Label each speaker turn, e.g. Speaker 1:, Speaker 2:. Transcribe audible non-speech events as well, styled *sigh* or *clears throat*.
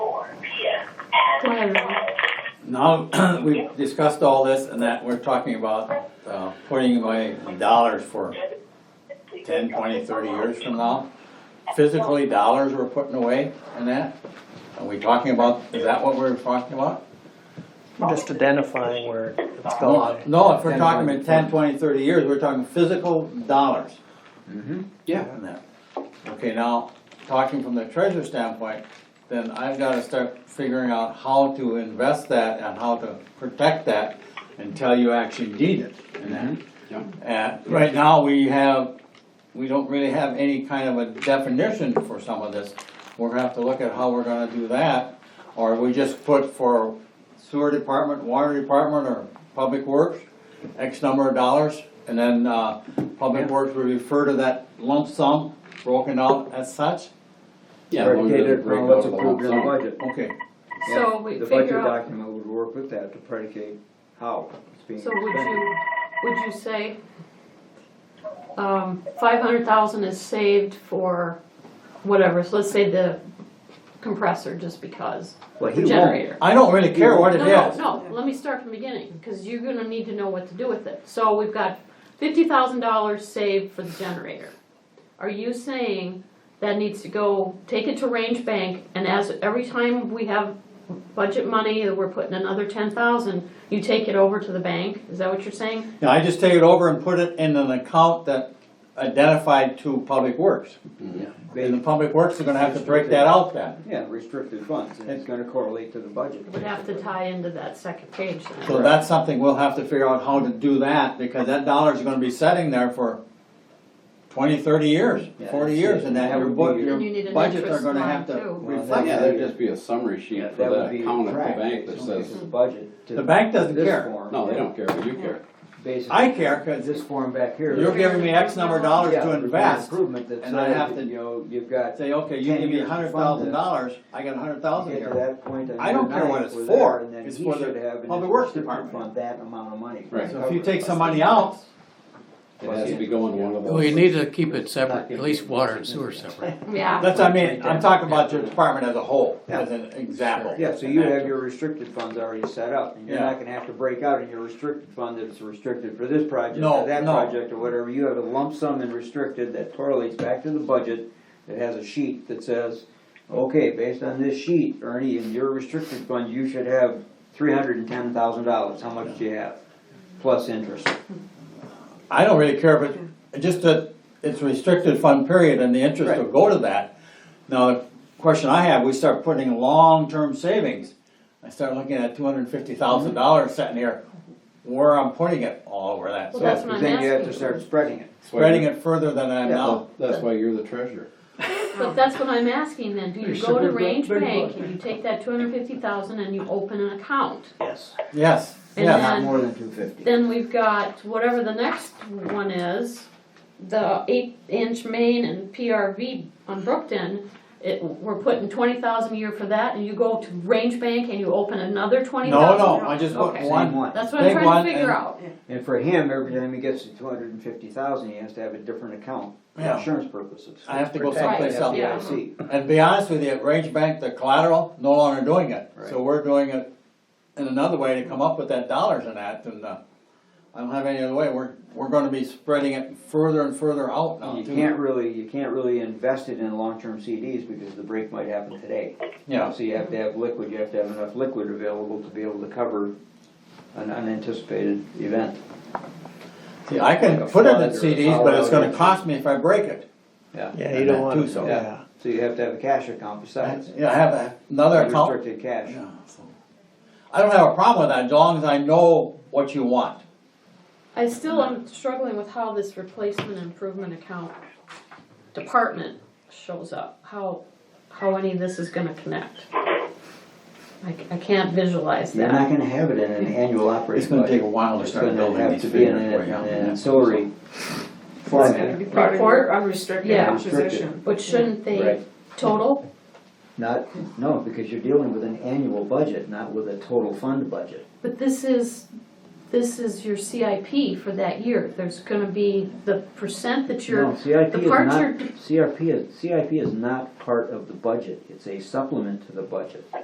Speaker 1: Now, *clears throat* we've discussed all this and that we're talking about, uh, putting away dollars for 10, 20, 30 years from now. Physically, dollars we're putting away and that. Are we talking about, is that what we're talking about?
Speaker 2: Just identifying where it's
Speaker 1: No,
Speaker 2: going.
Speaker 1: No, if we're talking about 10, 20, 30 years, we're talking physical dollars.
Speaker 3: Mm-hmm.
Speaker 4: Yeah.
Speaker 1: on that. Okay, now, talking from the treasure standpoint, then I've gotta start figuring out how to invest that and how to protect that until you actually need it. and that.
Speaker 4: Yeah.
Speaker 1: And right now, we have, we don't really have any kind of a definition for some of this. We're gonna have to look at how we're gonna do that, or we just put for sewer department, water department, or public works, X number of dollars, and then, uh, public works would refer to that lump sum broken out as such,
Speaker 4: Yeah. we're gonna
Speaker 3: Predicated
Speaker 4: break
Speaker 3: on what's
Speaker 4: out the
Speaker 3: approved in the
Speaker 4: lump sum.
Speaker 3: budget.
Speaker 1: okay.
Speaker 5: So
Speaker 3: Yeah,
Speaker 5: we
Speaker 3: The
Speaker 5: figure
Speaker 3: budget
Speaker 5: out,
Speaker 3: document would work with that to predicate how it's being
Speaker 5: so would
Speaker 3: spent.
Speaker 5: you, would you say, um, five hundred thousand is saved for whatever, so let's say the compressor, just because,
Speaker 3: Well, he
Speaker 5: the
Speaker 3: won't.
Speaker 5: generator.
Speaker 1: I don't really care what it
Speaker 5: No, no,
Speaker 1: is.
Speaker 5: no, let me start from the beginning, cause you're gonna need to know what to do with it. So we've got fifty thousand dollars saved for the generator. Are you saying that needs to go, take it to range bank, and as, every time we have budget money, that we're putting another ten thousand, you take it over to the bank? Is that what you're saying?
Speaker 1: Now, I just take it over and put it in an account that identified to public works. And the
Speaker 3: Mm-hmm. They-
Speaker 1: public works are gonna have to break that out then.
Speaker 3: Yeah, restricted funds, and it's gonna correlate to the budget.
Speaker 5: It Would have to tie into that second page then.
Speaker 1: So that's something we'll have to figure out how to do that, because that dollar's gonna be sitting there for twenty, thirty years,
Speaker 3: Yeah,
Speaker 1: forty
Speaker 3: that's
Speaker 1: years,
Speaker 3: it.
Speaker 1: and that
Speaker 3: That
Speaker 1: your
Speaker 3: would
Speaker 1: bu-
Speaker 3: be-
Speaker 1: your
Speaker 5: And you need an
Speaker 1: budgets are
Speaker 5: interest
Speaker 1: gonna
Speaker 5: line
Speaker 1: have to
Speaker 5: too.
Speaker 1: reflect
Speaker 4: Oh, Yeah,
Speaker 1: that.
Speaker 4: there'd just be a summary sheet for
Speaker 3: That would
Speaker 4: that
Speaker 3: be
Speaker 4: account of the
Speaker 3: tracked.
Speaker 4: bank that
Speaker 3: It's only
Speaker 4: says,
Speaker 3: the budget to
Speaker 1: The bank doesn't
Speaker 3: this
Speaker 1: care.
Speaker 3: form.
Speaker 4: no, they don't care, but you care.
Speaker 3: Basically,
Speaker 1: I care, 'cause
Speaker 3: this form back here.
Speaker 1: you're giving me X number of dollars
Speaker 3: Yeah,
Speaker 1: to
Speaker 3: there's an
Speaker 1: invest.
Speaker 3: Improvement that
Speaker 1: and I have
Speaker 3: says,
Speaker 1: to-
Speaker 3: you know, you've got,
Speaker 1: Say, okay, you give me a hundred thousand dollars, I got a hundred thousand
Speaker 3: get to
Speaker 1: here.
Speaker 3: that point on
Speaker 1: I don't
Speaker 3: your
Speaker 1: care what
Speaker 3: night,
Speaker 1: it's
Speaker 3: we're
Speaker 1: for.
Speaker 3: there, and then
Speaker 1: It's
Speaker 3: he
Speaker 1: for the
Speaker 3: should have in
Speaker 1: Public
Speaker 3: his
Speaker 1: Works
Speaker 3: restricted
Speaker 1: Department.
Speaker 3: fund That amount of money.
Speaker 4: Right.
Speaker 1: So if you take some money out,
Speaker 4: It has to be going one of those.
Speaker 6: Well, you need to keep it separate, at least water and sewer separate.
Speaker 5: Yeah,
Speaker 1: That's, I mean, I'm talking about your department as a whole, as an example.
Speaker 3: *laughs* Yeah, so you have your restricted funds already set up, and you're
Speaker 1: Yeah.
Speaker 3: not gonna have to break out in your restricted fund that it's restricted for this project,
Speaker 1: No,
Speaker 3: or that
Speaker 1: no.
Speaker 3: project, or whatever, you have a lump sum and restricted that correlates back to the budget, that has a sheet that says, okay, based on this sheet, Ernie, in your restricted fund, you should have three hundred and ten thousand dollars, how much do you have? Plus interest,
Speaker 1: I don't really care, if it just that it's restricted fund period and the interest will go to that. Now, the question I have, we start putting long-term savings. I start looking at two hundred and fifty thousand
Speaker 3: Mm-hmm.
Speaker 1: dollars sitting here, where I'm putting it all over that.
Speaker 5: Well,
Speaker 1: So
Speaker 5: that's
Speaker 3: So
Speaker 5: what I'm
Speaker 3: then you have to
Speaker 5: asking.
Speaker 3: start spreading it.
Speaker 4: That's why
Speaker 1: spreading
Speaker 4: you're-
Speaker 1: it further than I am
Speaker 3: Yeah,
Speaker 1: now.
Speaker 4: That's why you're the treasurer.
Speaker 5: But that's what I'm asking then, do you go to range bank and you take that two hundred fifty thousand and you open an account?
Speaker 3: Yes.
Speaker 1: Yes,
Speaker 5: And
Speaker 1: yes.
Speaker 3: Not
Speaker 5: then-
Speaker 3: more than two fifty.
Speaker 5: Then we've got whatever the next one is, the eight inch main and PRV on Brookton. It, we're putting twenty thousand a year for that and you go to range bank and you open another twenty
Speaker 1: No,
Speaker 5: thousand?
Speaker 1: no, I just put
Speaker 5: Okay.
Speaker 3: Same
Speaker 1: one,
Speaker 3: one.
Speaker 5: That's what I'm
Speaker 1: Big one
Speaker 5: trying to
Speaker 1: and-
Speaker 5: figure out.
Speaker 3: And for him, every time he gets to two hundred and fifty thousand, he has to have a different account for
Speaker 1: Yeah.
Speaker 3: insurance purposes.
Speaker 1: I have to go
Speaker 3: Protect
Speaker 1: someplace
Speaker 3: the
Speaker 1: else.
Speaker 3: FDIC.
Speaker 1: and be honest with you, at Range Bank, the collateral, no longer doing it. So
Speaker 3: Right.
Speaker 1: we're doing it in another way to come up with that dollars and that, and, uh, I don't have any other way, we're, we're gonna be spreading it further and further out now,
Speaker 3: You
Speaker 1: too.
Speaker 3: can't really, you can't really invest it in long-term CDs because the break might happen today.
Speaker 1: Yeah,
Speaker 3: So you have to have liquid, you have to have enough liquid available to be able to cover an unanticipated event.
Speaker 1: see, I can put it in CDs, but it's gonna cost me if I break it.
Speaker 2: Yeah, you don't
Speaker 1: That
Speaker 2: want
Speaker 1: too,
Speaker 2: to,
Speaker 1: so.
Speaker 2: yeah.
Speaker 3: So you have to have a cash account besides.
Speaker 1: Yeah, I have another account.
Speaker 3: Restricted cash.
Speaker 1: Yeah, so. I don't have a problem with that, as long as I know what you want.
Speaker 5: I still am struggling with how this replacement improvement account department shows up, how, how any of this is gonna connect. I, I can't visualize
Speaker 3: You're
Speaker 5: that.
Speaker 3: not gonna have it in an annual
Speaker 1: It's
Speaker 3: operating budget.
Speaker 1: gonna take a while to
Speaker 3: It's
Speaker 1: start
Speaker 3: gonna
Speaker 1: building
Speaker 3: have
Speaker 1: these
Speaker 3: to be in
Speaker 1: figures
Speaker 3: an
Speaker 1: for you.
Speaker 3: an ancillary format.
Speaker 7: be part of your unrestricted
Speaker 5: Yeah.
Speaker 7: acquisition.
Speaker 5: But shouldn't they
Speaker 3: Right.
Speaker 5: total?
Speaker 3: Not, no, because you're dealing with an annual budget, not with a total fund budget.
Speaker 5: But this is, this is your CIP for that year. There's gonna be the percent that
Speaker 3: No,
Speaker 5: you're,
Speaker 3: CIP
Speaker 5: the
Speaker 3: is
Speaker 5: parts
Speaker 3: not,
Speaker 5: are-
Speaker 3: CRP is, CIP is not part of the budget, it's a supplement to the budget.